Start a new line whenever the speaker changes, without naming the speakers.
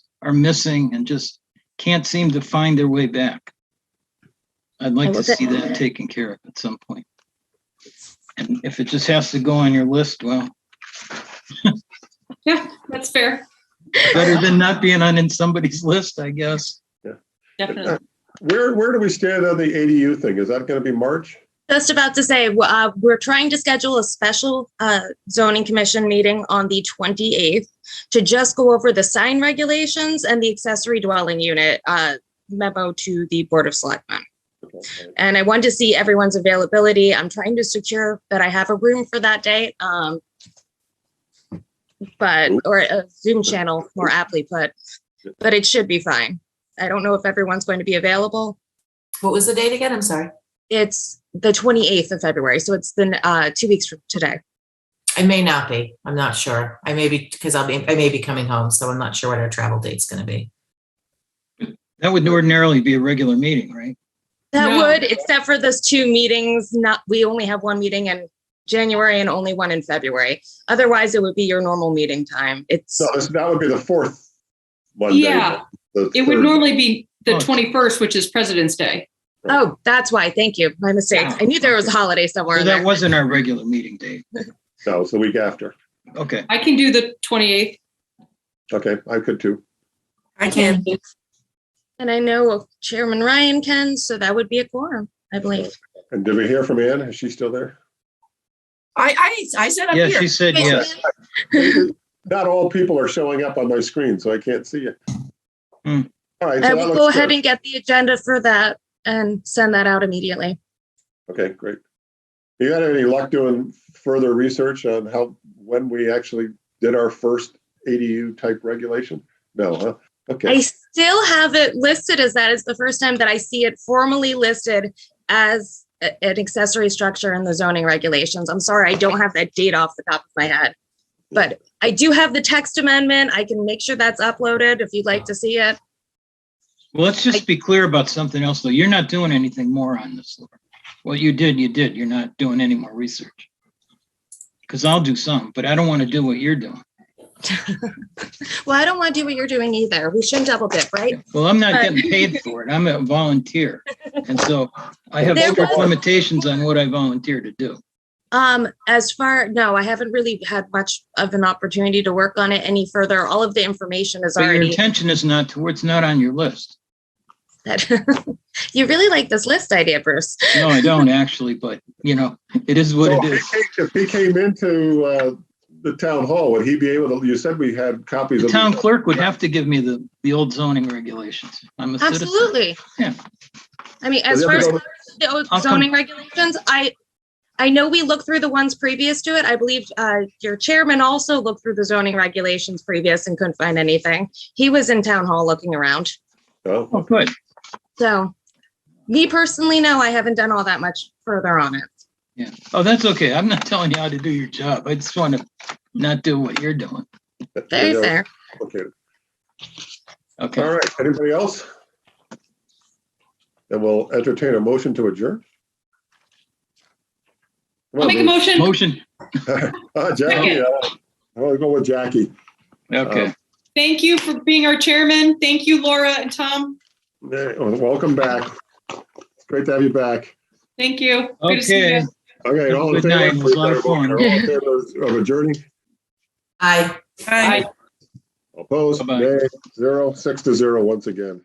are missing and just can't seem to find their way back. I'd like to
will say-
see that taken care of at some point. And if it just has to go on your list, well,
Yeah, that's fair.
better than not being on in somebody's list, I guess.
Uh,
Definitely.
Where, where do we stand on the ADU thing? Is that going to be March?
Just about to say, w- uh, we're trying to schedule a special uh, zoning commission meeting on the 28th to just go over the sign regulations and the accessory dwelling unit uh, memo to the Board of Selectmen. And I wanted to see everyone's availability. I'm trying to secure that I have a room for that day. um, But, or a Zoom channel, more aptly put, but it should be fine. I don't know if everyone's going to be available.
What was the date again? I'm sorry.
It's the 28th of February, so it's the uh, two weeks from today.
I may not be. I'm not sure. I may be because I'll be I may be coming home, so I'm not sure what our travel date's gonna be.
That would ordinarily be a regular meeting, right?
That
No.
would, except for those two meetings, not, we only have one meeting in January and only one in February. Otherwise, it would be your normal meeting time. It's,
No, this, that would be the fourth Monday.
Yeah,
the
it would
third.
normally be the
Oh.
21st, which is President's Day.
oh, that's why, thank you, my mistake. I knew there was a holiday somewhere
So
in
that
there.
wasn't our regular meeting date.
No, it's the week after.
Okay,
I can do the 28th.
Okay, I could too.
I can.
And I know Chairman Ryan can, so that would be a quorum, I believe.
And did we hear from Ann? Is she still there?
I, I, I said I'm
yeah,
here.
she said yes.
Not all people are showing up on my screen, so I can't see you.
Hmm.
All right. so
I
Uh,
that
will
looks
go ahead
good.
and get the agenda for that and send that out immediately.
Okay, great. You had any luck doing further research on how, when we actually did our first ADU type regulation? No, huh?
I
Okay,
still have it listed as that. It's the first time that I see it formally listed as a- an accessory structure in the zoning regulations. I'm sorry, I don't have that date off the top of my head. But I do have the text amendment. I can make sure that's uploaded if you'd like to see it.
Well, let's just be clear about something else, though. You're not doing anything more on this, Laura. What you did, you did. You're not doing any more research. Because I'll do some, but I don't want to do what you're doing.
Well, I don't want to do what you're doing either. We shouldn't double dip, right?
Well, I'm not
Right.
getting paid for it. I'm a volunteer. And so I have
There
strict
was-
limitations on what I volunteer to do.
Um, as far, no, I haven't really had much of an opportunity to work on it any further. All of the information is
But your
already.
intention is not to, it's not on your list.
You really like this list idea, Bruce.
No, I don't actually, but you know, it is what
so
it
if
is.
he- if he came into uh, the town hall, would he be able to, you said we had copies
The
of.
town clerk would have to give me the, the old zoning regulations. I'm a citizen.
Absolutely.
Yeah.
I mean,
So
as
the
far
other
as
one-
the old
I'll come-
zoning regulations, I, I know we looked through the ones previous to it. I believe uh, your chairman also looked through the zoning regulations previous and couldn't find anything. He was in town hall looking around.
Oh,
Oh, good.
So me personally, no, I haven't done all that much further on it.
Yeah. Oh, that's okay. I'm not telling you how to do your job. I just want to not do what you're doing.
that's
Very
really
fair.
complicated.
Okay.
All right, anybody else? And we'll entertain a motion to adjourn.
I'll make a motion.
Motion.
Uh, Jackie, uh, I'll go with Jackie. Uh,
Okay.
Thank you for being our chairman. Thank you, Laura and Tom.
Hey, Welcome back. It's Great to have you back.
Thank you. Good to see you.
Okay.
Okay, all in
Good night, it was a lot of
favor?
fun.
All in favor Of adjourning,
I
Bye.
opposed,
Bye-bye.
nay, zero, six to zero once again.